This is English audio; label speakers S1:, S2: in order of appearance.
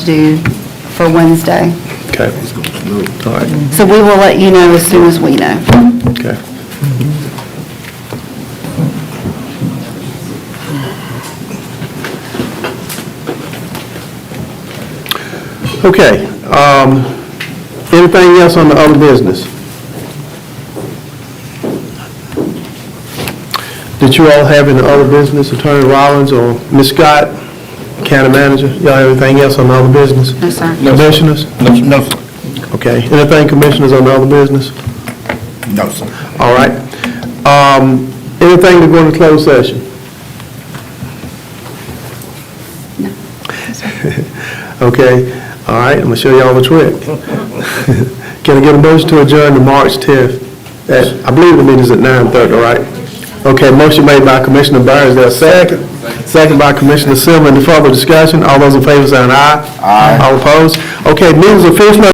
S1: due for Wednesday.
S2: Okay, all right,
S1: So we will let you know as soon as we know.
S2: okay. Okay, um, anything else on the other business? Did you all have any other business, Attorney Rollins or Ms. Scott, County Manager? Y'all have anything else on the other business?
S1: No, sir.
S2: Commissioners?
S3: No, no, sir.
S2: Okay, anything commissioners on the other business?
S3: No, sir.
S2: All right. Um, Anything to go into closed session? Okay, all right, I'm gonna show y'all the trick. Can I get a motion to adjourn to March 10th? At- I believe the meeting's at 9:30, all right? Okay, motion made by Commissioner Burns, there a second? Second by Commissioner Simmons, any further discussion? All those in favor say an aye. Aye. All opposed? Okay, meeting's officially